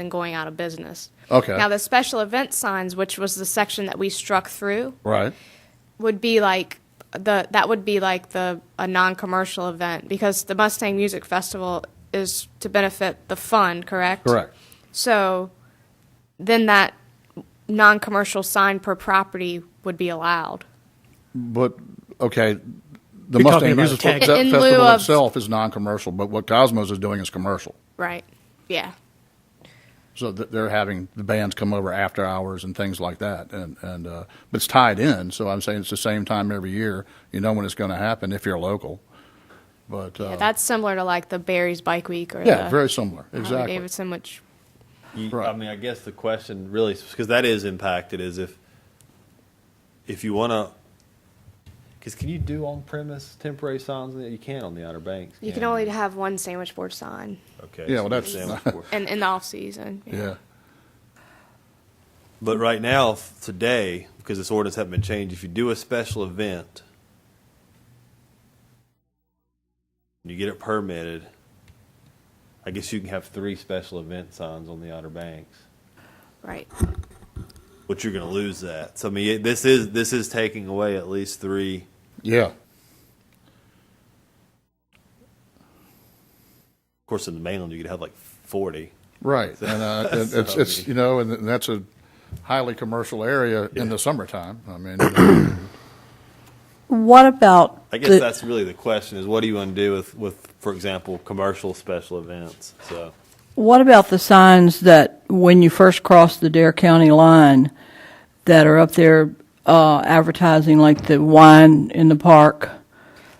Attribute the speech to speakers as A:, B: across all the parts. A: and going out of business.
B: Okay.
A: Now, the special event signs, which was the section that we struck through,
B: Right.
A: would be like the that would be like the a non-commercial event because the Mustang Music Festival is to benefit the fund, correct?
B: Correct.
A: So then that non-commercial sign per property would be allowed.
B: But okay, the
C: You're talking
B: Mustang
C: about
B: Music
C: a tag.
B: Fe-
A: In lieu
B: Festival
A: of-
B: itself is non-commercial, but what Cosmos is doing is commercial.
A: Right. Yeah.
B: So th- they're having the bands come over after hours and things like that, and and uh, but it's tied in. So I'm saying it's the same time every year. You know when it's going to happen if you're local. But uh,
A: yeah that's similar to like the Barry's Bike Week or
B: yeah,
A: the
B: very similar.
A: Harley
B: Exactly.
A: Davidson, which
D: You, I
B: Right.
D: mean, I guess the question really, because that is impacted, is if if you want to, because can you do on premise temporary signs? and that? You can on the Outer Banks.
A: you can
D: can't
A: only
D: you?
A: have one sandwich board sign,
D: Okay.
B: Yeah,
D: so
B: well, that's-
D: sandwich board.
A: and in the off season.
B: yeah.
D: But right now, f- today, because this ordinance hasn't been changed, if you do a special event, and you get it permitted, I guess you can have three special event signs on the Outer Banks.
A: Right.
D: But you're going to lose that. So I mean, it- this is this is taking away at least three.
B: Yeah.
D: Of course, in the mainland, you could have like forty.
B: Right, and uh, it- it's it's you know, and that's a highly commercial area in the summertime. I mean, you know,
E: What about?
D: I guess
E: the-
D: that's really the question: is what do you want to do with with, for example, commercial special events? So
E: What about the signs that when you first cross the Dare County line that are up there uh, advertising like the wine in the park?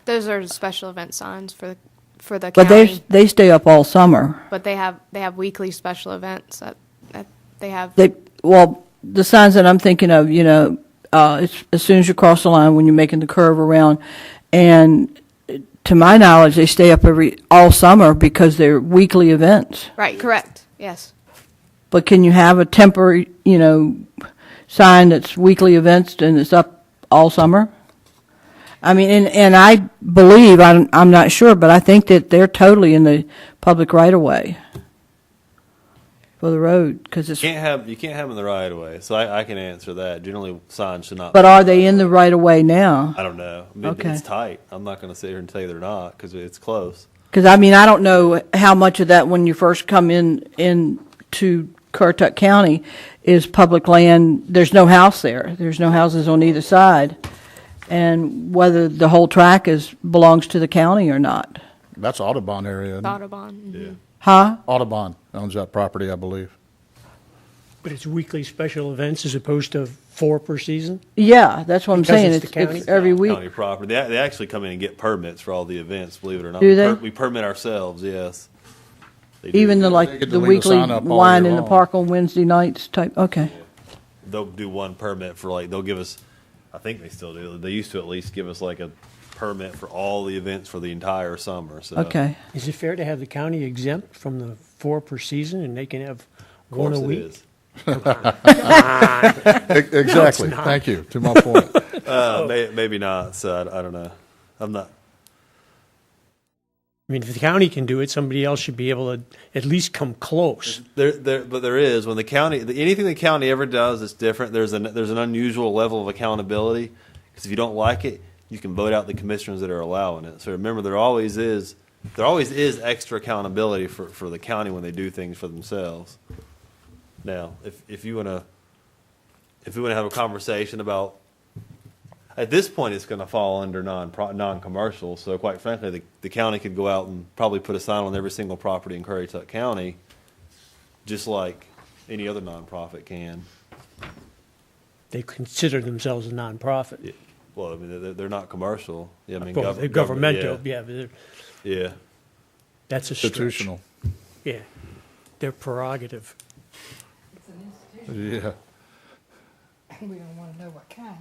A: Those are special event signs for the for the
E: But
A: county.
E: they they stay up all summer.
A: but they have they have weekly special events that, that they have
E: They well the signs that I'm thinking of, you know, uh, it's, as soon as you cross the line when you're making the curve around, and to my knowledge, they stay up every all summer because they're weekly events.
A: right correct yes
E: But can you have a temporary, you know, sign that's weekly events and it's up all summer? I mean, and, and I believe, I'm, I'm not sure, but I think that they're totally in the public right of way for the road, because it's,
D: you can't have you can't have them in the right of way. So I, I can answer that. Generally, signs should not.
E: but are they in the right of way now?
D: I don't know. I mean,
E: Okay.
D: It's tight. I'm not going to sit here and tell you they're not because it's close.
E: Because I mean, I don't know how much of that when you first come in, in to Currituck County is public land. There's no house there. There's no houses on either side. And whether the whole track is, belongs to the county or not.
B: that's Audubon area. isn't it?
A: Audubon mhm.
E: Huh?
B: Audubon owns that property, I believe.
C: But it's weekly special events as opposed to four per season?
E: Yeah, that's what I'm
C: Because
E: saying.
C: it's the
E: It's, it's
C: county?
E: every week.
D: County property. They, they actually come in and get permits for all the events. Believe it or not,
E: Do
D: we,
E: they?
D: we permit ourselves. Yes. They do.
E: Even the
B: They
E: like,
B: get
E: the
B: to leave the
E: weekly
B: sign up all
E: wine
B: year
E: in the
B: long.
E: park on Wednesday nights type, okay.
D: they'll do one permit for like they'll give us. I think they still do. They used to at least give us like a permit for all the events for the entire summer. So
E: Okay.
C: Is it fair to have the county exempt from the four per season and they can have
D: of
C: one
D: course
C: a
D: it
C: week?
D: is.
B: E- Exactly. Thank you. To my point.
D: Uh, may, maybe not. So I, I don't know. I'm not.
C: I mean, if the county can do it, somebody else should be able to at least come close.
D: There, there, but there is when the county anything the county ever does is different. There's an there's an unusual level of accountability because if you don't like it, you can vote out the commissioners that are allowing it. So remember, there always is there always is extra accountability for, for the county when they do things for themselves. Now, if if you wanna if we wanna have a conversation about at this point, it's going to fall under non non commercial. So quite frankly, the, the county could go out and probably put a sign on every single property in Currituck County just like any other nonprofit can.
C: They consider themselves a nonprofit.
D: Well, I mean, they're, they're not commercial. Yeah, I mean,
C: Well, they're
D: gov-
C: governmental,
D: government,
C: yeah, but they're-
D: Yeah. yeah.
C: that's a stretch.
B: Institutional.
C: Yeah, they're prerogative.
B: Yeah.
F: We don't want to know what kind.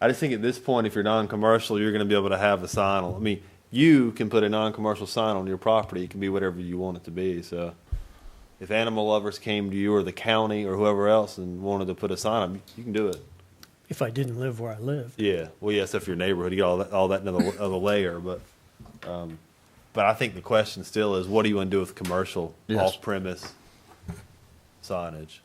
D: I just think at this point, if you're non-commercial, you're going to be able to have a sign on. I mean, you can put a non-commercial sign on your property. It can be whatever you want it to be. So, if animal lovers came to you or the county or whoever else and wanted to put a sign on, you can do it.
C: If I didn't live where I live.
D: Yeah. Well, yes, if your neighborhood, you get all that, all that another, other layer. But, um, but I think the question still is, what do you want to do with commercial
B: Yes.
D: off premise signage.